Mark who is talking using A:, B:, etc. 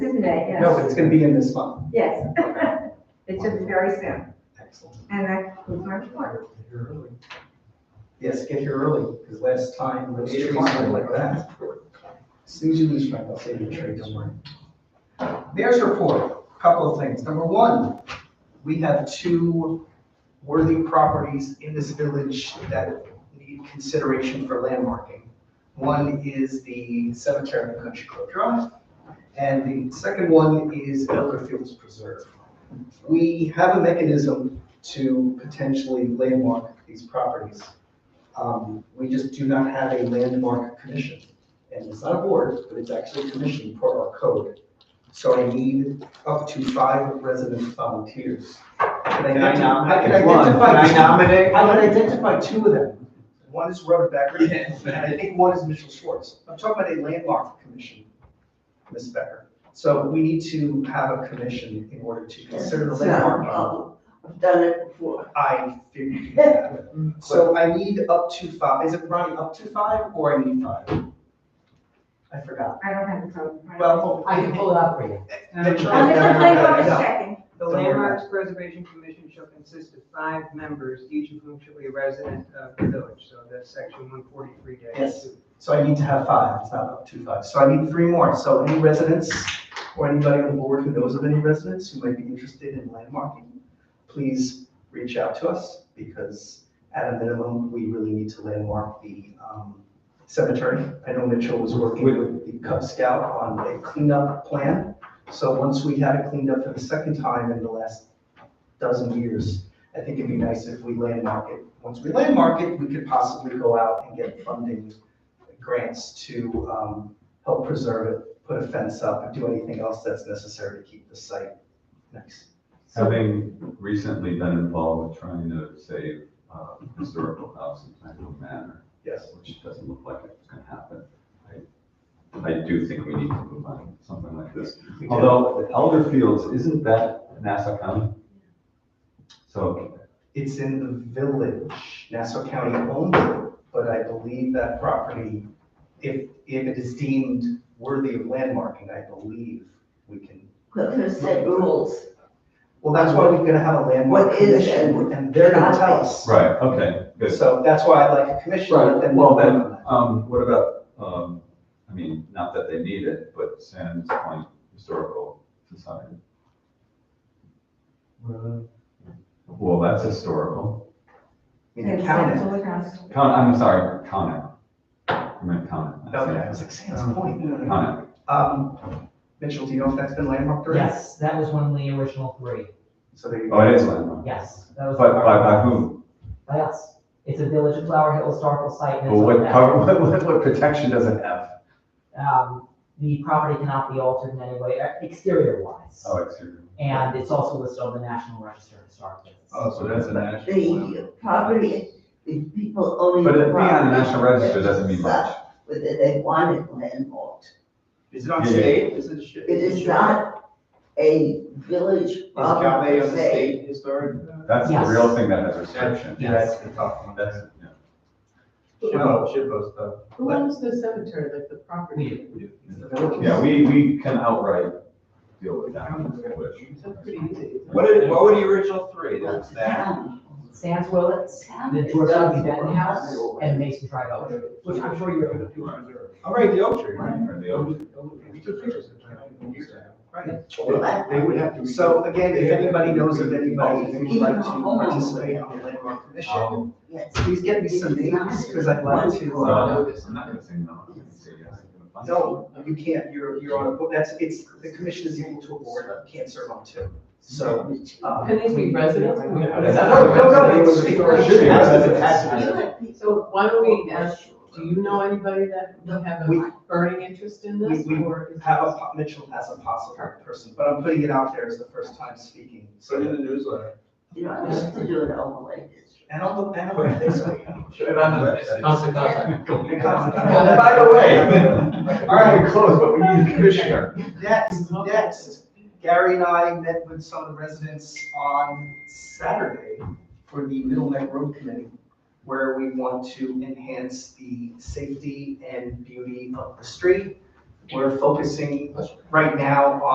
A: today,
B: No,
A: yes,
B: but it's gonna be in this month.
A: yes. It should be very soon,
B: Excellent.
A: and that concludes my report.
B: Yes, get here early, because last time, those
C: Eight
B: trees
C: o'clock.
B: were like that. As soon as you leave, Frank, I'll save your tree, don't worry. Mayor's report, a couple of things. Number one, we have two worthy properties in this village that need consideration for landmarking. One is the cemetery on Country Club Drive, and the second one is Elder Fields Preserve. We have a mechanism to potentially landmark these properties. Um, We just do not have a landmark commission. And it's not a board, but it's actually a commission for our code. So I need up to five resident volunteers. Can I
C: Can I
B: get to-
C: nominate
B: can I get to
C: one?
B: five?
C: Can I nominate
B: I
C: one?
B: would identify two of them. One is Robert Becker, and I think one is Mitchell Schwartz. I'm talking about a landmark commission, Ms. Becker. So we need to have a commission in order to consider the
D: It's not a
B: landmark.
A: oh,
D: problem. I've done it before.
B: I figured you had it.
A: Mm.
B: So I need up to five, is it Ronnie, up to five or I need five? I forgot.
A: I don't have the code. I don't-
B: Well,
E: I can pull it up for you.
B: Mitchell-
A: I'm just playing bonus
B: No.
A: checking.
F: The Landmarks Preservation Commission shall consist of five members, each of whom shall be a resident of the village, so that's section one forty-three
B: Yes. So I need to have five, it's not up to five. So I need three more. So any residents or anybody on the board who knows of any residents who might be interested in landmarking, please reach out to us because at a minimum, we really need to landmark the um, cemetery. I know Mitchell was working with the Cub Scout on a cleanup plan. So once we had it cleaned up for the second time in the last dozen years, I think it'd be nice if we landmark it. Once we landmark it, we could possibly go out and get funding grants to um, help preserve it, put a fence up, and do anything else that's necessary to keep the site nice.
G: Having recently been involved with trying to save uh, historical house in Franklin Manor,
B: Yes.
G: which doesn't look like it's going to happen, I- I do think we need to move on to something like this.
B: we do.
G: Although Elder Fields, isn't that Nassau County? So
B: It's in the village, Nassau County owns it, but I believe that property, if, if it is deemed worthy of landmarking, I believe we can.
D: But there's set rules.
B: Well, that's why we're gonna have a landmark
D: What is it?
B: commission, and they're gonna tell us.
G: Right, okay, good.
B: So that's why I like a commission, let
G: Right,
B: them
G: well
B: know that.
G: then, um, what about, um, I mean, not that they need it, but Sands Point Historical Society? Well, that's historical.
B: You can count it.
G: Con, I'm sorry, Conic. I meant Conic. not
B: Okay, I
G: Sands.
B: was like, Sands Point. no, no, no.
G: Conic,
B: Um, Mitchell, do you know if that's been landmarked or? not?
E: Yes, that was one of the original three.
B: So there you go.
G: oh, it is landmark.
E: Yes, that
G: But,
E: was.
G: but by whom?
E: By us. It's a Village of Flower Hill historical site. and
G: But
E: it's
G: what
E: on
G: cover, what, what, what protection does it have?
E: that. Um, the property cannot be altered in any way, exterior wise.
G: Oh, exterior.
E: And it's also listed on the National Register of Historic Places.
C: Oh, so that's a national.
D: The property, the people owning.
G: But it being on the
D: property
G: National Register doesn't mean much.
D: decide Whether they want it landlocked.
B: Is it on
G: Yeah.
B: state? Is it?
D: It is not a village property
C: Galway
D: per
C: on the
D: se.
C: state historic?
G: That's the
E: Yes.
G: real thing that has restriction.
E: Yes.
B: the tough one.
G: That's, yeah.
C: Shippo, Shippo stuff.
B: Who
F: owns the cemetery, like the property?
G: Yeah, we, we can outright deal with that.
C: What is, what were the original three? There was that.
D: Town.
E: Sands Willets,
D: Town
E: the
D: is
E: George
D: not
E: W. Benton House,
D: rural.
E: and Mason Drive Elevator, which I'm sure you're. aware of.
C: All right, the oak tree.
G: Or the oak.
C: We took pictures of that.
B: They would have to. So again, if anybody knows of anybody who would like to participate on the landmark commission,
G: Um,
D: Yes.
B: please get me some names, because I'd like
C: Uh-huh.
B: to. uh,
G: no, I'm not gonna say no, I'm gonna say yes.
B: No, you can't, you're, you're on a, board. that's, it's, the commission is equal to a board, you can't serve on two. So, um,
F: Can these be residents?
G: That's not-
B: No, no, no, it's- it should be.
F: So why don't we ask, do you know anybody that would have
B: We-
F: a burning interest in
B: we,
F: this?
B: we
F: or is
B: have
F: this-
B: a, Mitchell as a possible person, but I'm putting it out there as the first time speaking. So,
C: Put it in the newsletter.
D: You don't have to do it all the way this.
B: and on the, and on the Facebook.
C: Put it on the website.
B: And by the way,
G: All right, we closed, but we need a commissioner.
B: Next, next, Gary and I met with some of the residents on Saturday for the Middle Neck Road Committee, where we want to enhance the safety and beauty of the street. We're focusing right now